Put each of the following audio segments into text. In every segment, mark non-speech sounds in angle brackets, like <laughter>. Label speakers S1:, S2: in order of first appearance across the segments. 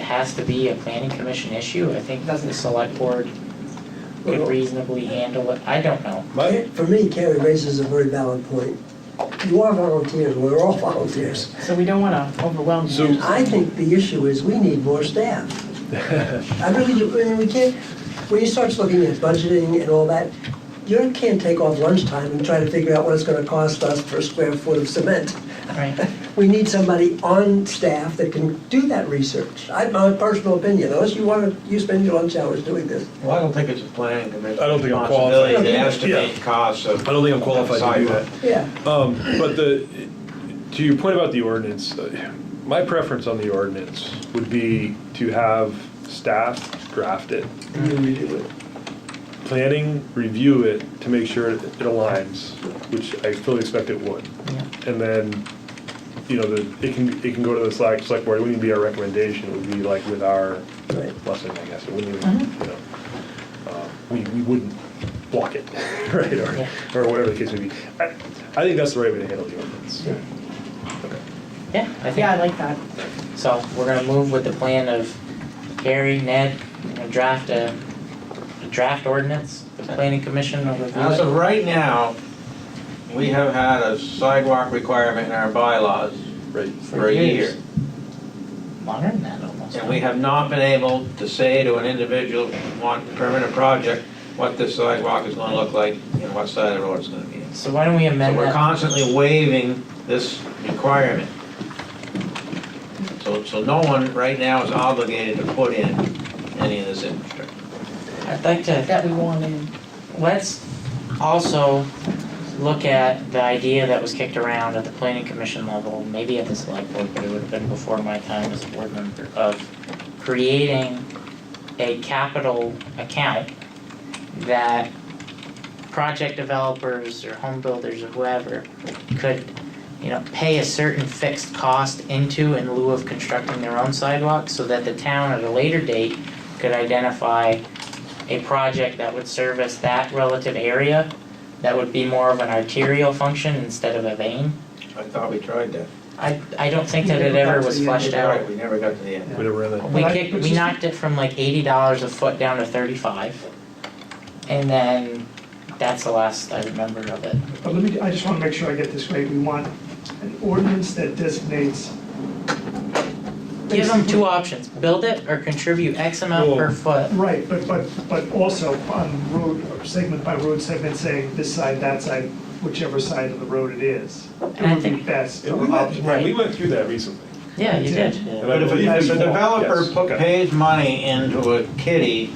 S1: has to be a planning commission issue? I think the select board could reasonably handle it, I don't know.
S2: My,
S3: For me, Carrie raises a very valid point. You are volunteers, we're all <laughs> volunteers.
S4: So we don't want to overwhelm
S2: So-
S4: you.
S3: I think the issue is we need more staff. I really do, I mean, we can't, when you start looking at budgeting and all that, you can't take off lunchtime and try to figure out what it's gonna cost us per square foot of cement.
S1: Right.
S3: We need somebody on staff that can do that research. I, my personal opinion, unless you wanna, you spend your lunch hours doing this.
S5: Well, I don't think it's a planning commission.
S2: I don't think I'm
S5: responsibility
S2: qualified.
S5: to
S3: Yeah.
S5: estimate costs of.
S2: I don't think I'm qualified to do that.
S3: Yeah.
S2: Um, but the, to your point about the ordinance, uh, my preference on the ordinance would be to have staff draft it,
S3: And you redo it.
S2: planning review it to make sure it aligns, which I fully expect it would.
S1: Yeah.
S2: And then, you know, the, it can, it can go to the select, select board, it wouldn't be our recommendation, it would be like with our
S3: Right.
S2: blessing, I guess, it wouldn't even,
S1: Mm-hmm.
S2: you know. uh, We, we wouldn't block it, <laughs> right,
S1: Yeah.
S2: or, or whatever the case may be. I, I think that's the right way to handle the ordinance. Okay.
S1: Yeah, I
S4: Yeah, I
S1: think,
S4: like that.
S1: so we're gonna move with the plan of Gary, Ned, we're gonna draft a, a draft ordinance, the planning commission will review
S5: As of
S1: it.
S5: right now, we have had a sidewalk requirement in our bylaws
S2: Right.
S5: for a year.
S1: Longer than that almost.
S5: And we have not been able to say to an individual on permanent project what this sidewalk is gonna look like and what side of the road it's gonna be.
S1: So why don't we
S5: So
S1: amend
S5: we're
S1: that?
S5: constantly waiving this requirement. So, so no one right now is obligated to put in any of this infrastructure.
S1: I'd like to
S4: That we want in.
S1: Let's also look at the idea that was kicked around at the planning commission level, maybe at the select board, but it would have been before my time as a board member, of creating a capital account that project developers or home builders or whoever could, you know, pay a certain fixed cost into in lieu of constructing their own sidewalks, so that the town at a later date could identify a project that would service that relative area that would be more of an arterial function instead of a vein.
S5: I thought we tried that.
S1: I, I don't think that it ever was fleshed out.
S5: We never got to the end.
S2: We never ran that.
S1: We kicked, we knocked it from like eighty dollars a foot down to thirty-five. And then that's the last I remember of it.
S6: But let me, I just want to make sure I get this right. We want an ordinance that designates,
S1: Give them two options, build it or contribute X amount per
S2: Whoa.
S1: foot.
S6: right, but, but, but also on road, or segment by road segment, saying this side, that side, whichever side of the road it is. It
S1: And I
S6: would be
S1: think-
S6: best.
S2: we went,
S1: Right. we
S2: through that recently.
S1: Yeah, you did.
S5: But if, if a developer pu- pays money into a kitty,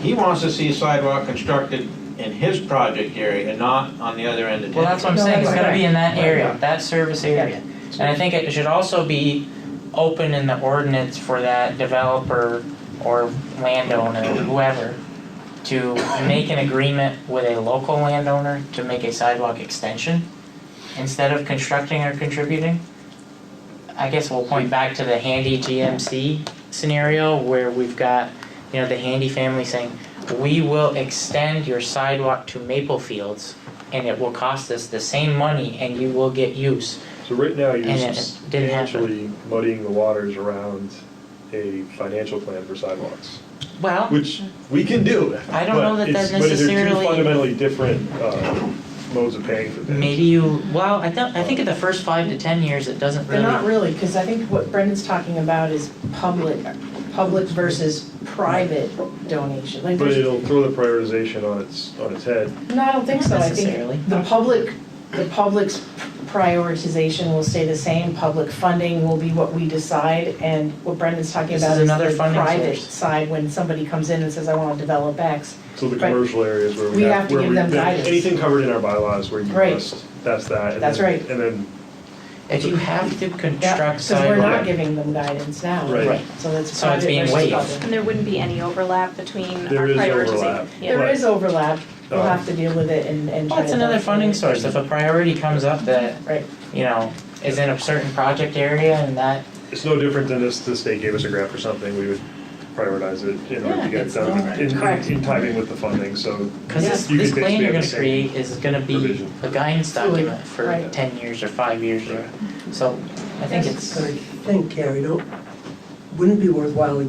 S5: he wants to see sidewalk constructed in his project area and not on the other end of town.
S1: Well, that's what I'm
S4: No,
S1: saying, it's
S4: that's
S1: gotta be in that
S6: right.
S1: area, that service area.
S4: Yeah.
S1: And I think it should also be open in the ordinance for that developer or landowner, whoever, to make an agreement with a local landowner to make a sidewalk extension instead of constructing or contributing. I guess we'll point back to the handy GMC scenario where we've got, you know, the handy family saying, we will extend your sidewalk to Maple Fields and it will cost us the same money and you will get use.
S2: So right now, you're
S1: And it didn't happen.
S2: substantially muddying the waters around a financial plan for sidewalks,
S1: Well,
S2: which we can do.
S1: I don't know
S2: but
S1: that that
S2: it's- but they're two
S1: necessarily-
S2: fundamentally different uh, modes of paying for things.
S1: Maybe you, well, I don't, I think in the first five to ten years, it doesn't
S4: But not
S1: really,
S4: really, because I think what Brendan's talking about is public, public versus private donation. Like,
S2: But
S4: there's-
S2: it'll throw the prioritization on its, on its head.
S4: no, I don't think so. I
S1: Necessarily.
S4: think the public, the public's prioritization will stay the same. Public funding will be what we decide, and what Brendan's talking
S1: This
S4: about
S1: is
S4: is
S1: another
S4: the
S1: funding
S4: private
S1: source.
S4: side, when somebody comes in and says, I want to develop X.
S2: So the
S4: Right.
S2: commercial areas where we
S4: We
S2: have,
S4: have to
S2: where
S4: give
S2: we,
S4: them
S2: that-
S4: guidance.
S2: anything covered in our bylaws where you
S4: Right.
S2: must, that's that. and
S4: That's
S2: then-
S4: right.
S2: And then,
S1: if you have to construct
S4: Because we're not
S1: sidewalk,
S4: giving them guidance now.
S2: Right.
S1: right,
S4: So that's
S1: So it's
S4: private
S1: being
S4: versus
S1: waived.
S4: public.
S7: And there wouldn't be any overlap between
S2: There
S7: our
S2: is
S7: prioritization.
S2: overlap.
S7: Yeah.
S4: There
S2: Right.
S4: is overlap, we'll
S2: Um,
S4: have to deal with it and, and.
S1: well, Oh, it's
S4: try to-
S1: another funding source, if a priority comes up that,
S4: Right,
S1: you know, is in a certain project area and that,
S2: it's no different than this, the state gave us a grant for something, we would prioritize it in order
S1: Yeah,
S2: to get it
S1: it's
S2: done
S1: not-
S2: in-
S4: correct.
S2: in, in timing with the funding, so.
S1: cause this,
S2: you
S1: this
S2: could
S1: plan
S2: basically
S1: you're
S2: have
S1: gonna
S2: the same-
S1: create is gonna be
S2: provision.
S1: a guidance
S4: Fluid,
S1: document for
S4: right.
S1: ten years or five years or, so, I think it's,
S3: But I think, Carrie, don't, wouldn't it be worthwhile